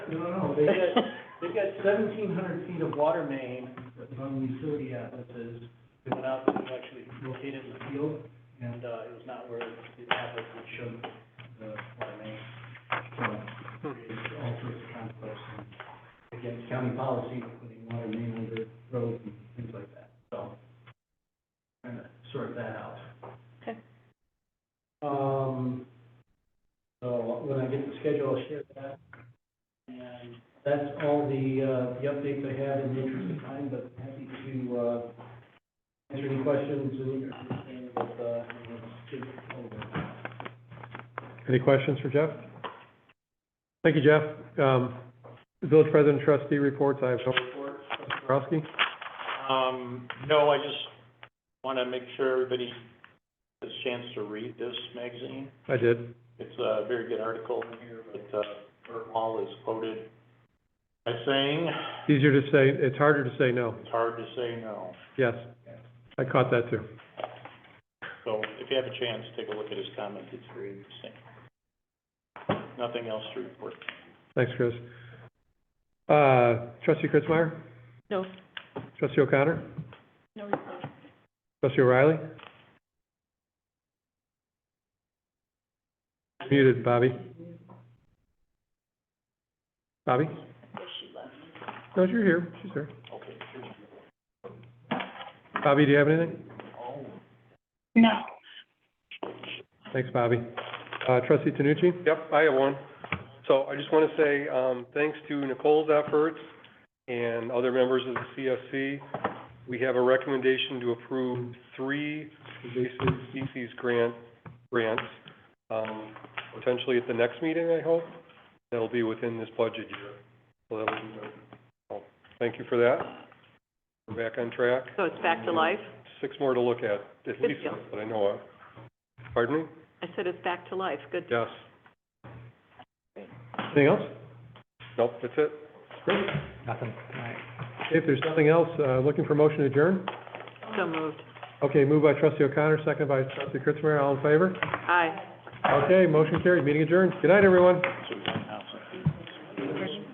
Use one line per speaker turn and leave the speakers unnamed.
No, no, they've got, they've got seventeen hundred feet of water main from utility atlases that went out to actually locate it in the field, and, uh, it was not where the atlas would show the water main. So, it's all sorts of conflicts, and against county policy, putting water main under roads and things like that, so. Trying to sort that out.
Okay.
Um, so when I get the schedule, I'll share that. And that's all the, uh, the updates I have in the interest of time, but happy to, uh, answer any questions and understand what, uh, you know, it's over.
Any questions for Jeff? Thank you, Jeff. Um, Village President Trustee reports, I have no report. Trustee Borowski?
Um, no, I just want to make sure everybody has a chance to read this magazine.
I did.
It's a very good article in here, but, uh, Bert Wall is quoted as saying,
Easier to say, it's harder to say no.
it's hard to say no.
Yes. I caught that too.
So if you have a chance, take a look at his comments, it's very interesting. Nothing else to report.
Thanks, Chris. Uh, Trustee Chris Meyer?
No,
Trustee O'Connor?
no report.
Trustee O'Reilly? Muted, Bobby. Bobby? No, you're here. She's here.
Okay.
Bobby, do you have anything?
No.
Thanks, Bobby. Uh, Trustee Tanucci?
Yep, I have one. So I just want to say, um, thanks to Nicole's efforts and other members of the CFC, we have a recommendation to approve three invasive species grant, grants, um, potentially at the next meeting, I hope. That'll be within this budget year. So that'll be, good. So, thank you for that. We're back on track.
So it's back to life?
Six more to look at, at least,
deal.
that I know of. Pardon me?
I said it's back to life, good.
Yes.
Anything else?
Nope, that's it.
Great. Nothing. If there's nothing else, uh, looking for motion to adjourn?
So moved.
Okay, moved by Trustee O'Connor, seconded by Trustee Kritzmeyer. All in favor?
Aye.
Okay, motion carried. Meeting adjourned. Good night, everyone.
So we can now.